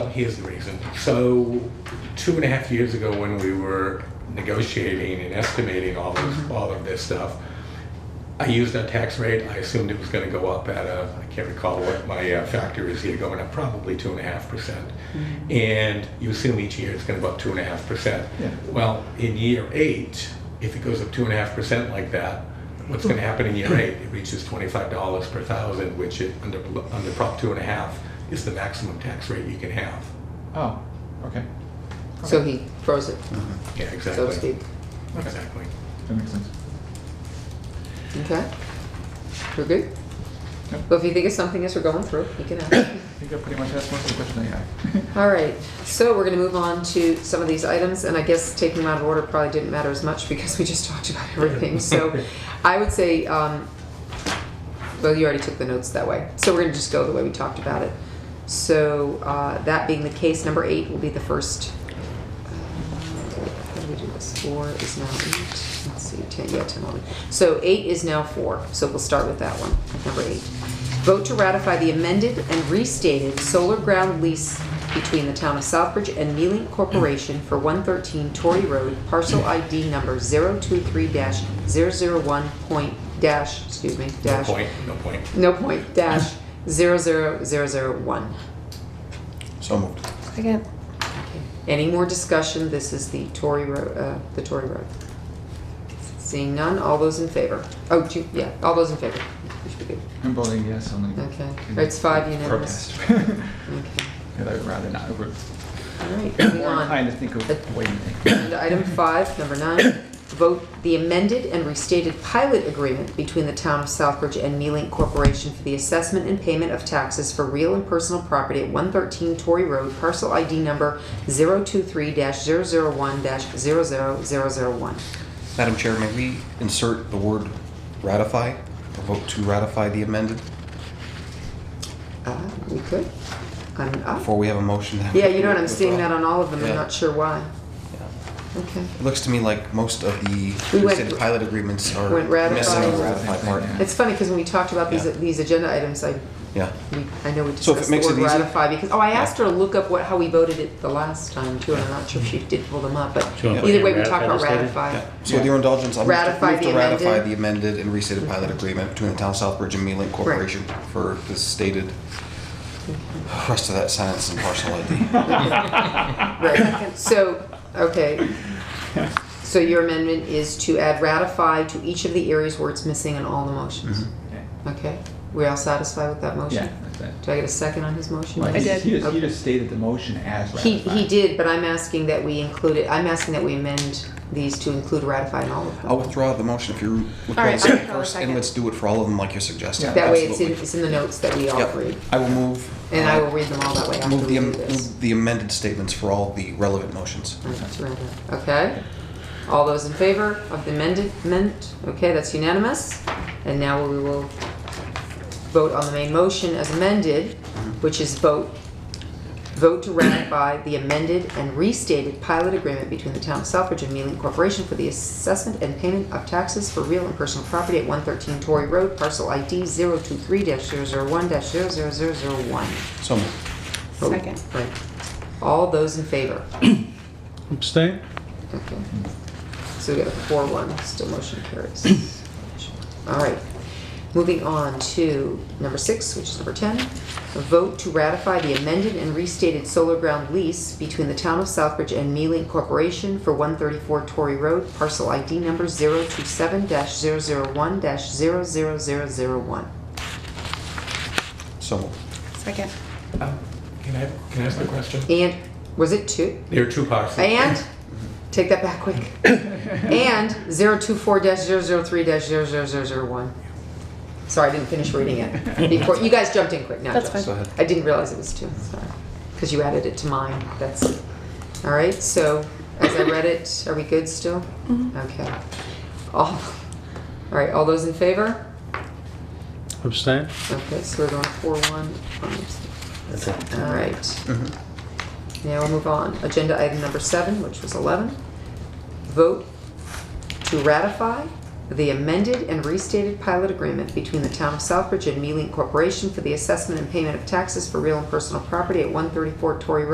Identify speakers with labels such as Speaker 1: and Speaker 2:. Speaker 1: here's the reason. So, two and a half years ago, when we were negotiating and estimating all of, all of this stuff, I used our tax rate. I assumed it was going to go up at a, I can't recall what my uh, factor is here, going up probably two and a half percent. And you assume each year it's going to go up two and a half percent.
Speaker 2: Yeah.
Speaker 1: Well, in year eight, if it goes up two and a half percent like that, what's going to happen in year eight? It reaches twenty-five dollars per thousand, which it, under, under Prop two and a half is the maximum tax rate you can have.
Speaker 2: Oh, okay.
Speaker 3: So he froze it,
Speaker 1: Yeah,
Speaker 3: so to
Speaker 1: exactly.
Speaker 3: speak.
Speaker 1: Exactly.
Speaker 2: That makes sense.
Speaker 3: Okay? We're good?
Speaker 2: Yep.
Speaker 3: Well, if you think of something as we're going through, you can ask.
Speaker 2: I think I pretty much asked most of the questions I had.
Speaker 3: All right, so we're gonna move on to some of these items, and I guess taking them out of order probably didn't matter as much because we just talked about everything. So I would say, um, well, you already took the notes that way, so we're gonna just go the way we talked about it. So, uh, that being the case, number eight will be the first. How do we do this? Four is now eight, let's see, ten, yeah, ten, eleven. So eight is now four, so we'll start with that one, number eight. Vote to ratify the amended and restated solar ground lease between the town of Southbridge and Mealing Corporation for one thirteen Torrey Road, parcel ID number 023 dash point dash, excuse me,
Speaker 1: No
Speaker 3: dash.
Speaker 1: point, no point.
Speaker 3: No point, dash, zero zero zero zero one.
Speaker 4: So moved.
Speaker 5: Second.
Speaker 3: Any more discussion? This is the Tory Road, uh, the Tory Road. Seeing none, all those in favor? Oh, do you- yeah, all those in favor. We should be good.
Speaker 2: I'm voting yes on the.
Speaker 3: Okay. It's five unanimous.
Speaker 2: Protest.
Speaker 3: Okay,
Speaker 2: And I would rather not. I would-
Speaker 3: all right, moving
Speaker 2: I'm
Speaker 3: on.
Speaker 2: trying to think of what you think.
Speaker 3: Agenda Item five, number nine, vote the amended and restated pilot agreement between the town of Southbridge and Mealing Corporation for the assessment and payment of taxes for real and personal property at one thirteen Torrey Road, parcel ID number 023-001-00001.
Speaker 4: Madam Chair, may we insert the word ratify, a vote to ratify the amended,
Speaker 3: Uh, we could. I'm up.
Speaker 4: before we have a motion? to have-
Speaker 3: Yeah, you know what, I'm seeing that on all of them, I'm
Speaker 4: Yeah.
Speaker 3: not sure why.
Speaker 4: Yeah.
Speaker 3: Okay.
Speaker 4: It looks to me like most of
Speaker 3: We
Speaker 4: the
Speaker 3: went-
Speaker 4: listed pilot agreements are
Speaker 3: went ratify.
Speaker 4: missing the ratify part.
Speaker 2: Yeah.
Speaker 3: It's funny, because when we talked about these,
Speaker 4: Yeah.
Speaker 3: these agenda items, I,
Speaker 4: Yeah.
Speaker 3: we, I know we
Speaker 4: So if
Speaker 3: discussed
Speaker 4: it
Speaker 3: the
Speaker 4: makes it
Speaker 3: word
Speaker 4: easy-
Speaker 3: ratify, because, oh, I asked her to look up what, how we voted it the last time too, and I'm not sure if she did pull them up, but
Speaker 6: Do you wanna put
Speaker 3: either
Speaker 6: in
Speaker 3: way, we
Speaker 6: ratify
Speaker 3: talked about
Speaker 6: this later?
Speaker 3: ratify.
Speaker 4: Yeah. So with your indulgence, I'll move to-
Speaker 3: Ratify
Speaker 4: move
Speaker 3: the
Speaker 4: to ratify
Speaker 3: amended.
Speaker 4: the amended and restated pilot agreement between the town of Southbridge and Mealing Corporation for the stated rest of that sentence and parcel ID.
Speaker 3: Right, so, okay. So your amendment is to add ratify to each of the areas where it's missing in all the motions.
Speaker 2: Okay.
Speaker 3: Okay, we all satisfied with that motion?
Speaker 2: Mm-hmm. Yeah, that's it.
Speaker 3: Do I get a second on his motion?
Speaker 2: Well,
Speaker 5: I
Speaker 2: he-
Speaker 5: did.
Speaker 2: He just, he just stated the motion as
Speaker 3: He,
Speaker 2: ratified.
Speaker 3: he did, but I'm asking that we include it, I'm asking that we amend these to include ratify in all of
Speaker 4: I'll
Speaker 3: them.
Speaker 4: withdraw the motion if you're.
Speaker 5: All right, I'll
Speaker 4: second
Speaker 5: withdraw the
Speaker 4: first, And
Speaker 5: second.
Speaker 4: let's do it for all of them like you're suggesting.
Speaker 2: Yeah.
Speaker 3: That way it's in,
Speaker 4: Absolutely.
Speaker 3: it's in the notes that we all
Speaker 4: Yep.
Speaker 3: read,
Speaker 4: I will move.
Speaker 3: and
Speaker 4: uh,
Speaker 3: I will read them all that way after
Speaker 4: Move
Speaker 3: we
Speaker 4: the,
Speaker 3: do
Speaker 4: am-
Speaker 3: this.
Speaker 4: move the amended statements for all the relevant motions.
Speaker 3: That's right. Okay, all those in favor of the amended, amendment, okay, that's unanimous, and now we will vote on the main motion as amended, which is vote, vote to ratify the amended and restated pilot agreement between the town of Southbridge and Mealing Corporation for the assessment and payment of taxes for real and personal property at one thirteen Torrey Road, parcel ID 023-001-00001.
Speaker 4: So,
Speaker 3: Vote.
Speaker 5: Second.
Speaker 3: Oh, Right. All those in favor?
Speaker 6: Abstain?
Speaker 3: Okay. So we got a four one, still motion carries. All right, moving on to number six, which is number ten. A vote to ratify the amended and restated solar ground lease between the town of Southbridge and Mealing Corporation for one thirty-four Torrey Road, parcel ID number 27 one 1
Speaker 4: so moved.
Speaker 5: Second.
Speaker 1: Um, Can I, can I ask a question?
Speaker 3: And, was it two?
Speaker 1: There are two parcels.
Speaker 3: And, take that back quick. And 024-003-00001. Sorry, I didn't finish reading it before, you guys jumped in quick, now
Speaker 5: That's
Speaker 3: Josh.
Speaker 4: Go ahead.
Speaker 3: I didn't realize it was two, sorry, because you added it to mine, that's, all right, so as I read it, are we good still? Okay. All, all right, all those in favor?
Speaker 6: Abstain?
Speaker 3: Okay, so we're going four one. All right.
Speaker 4: Mm-hmm.
Speaker 3: Now we'll move on. Agenda item number seven, which was eleven. Vote to ratify the amended and restated pilot agreement between the town of Southbridge and Mealing Corporation for the assessment and payment of taxes for real and personal property at one thirty-four Torrey Road.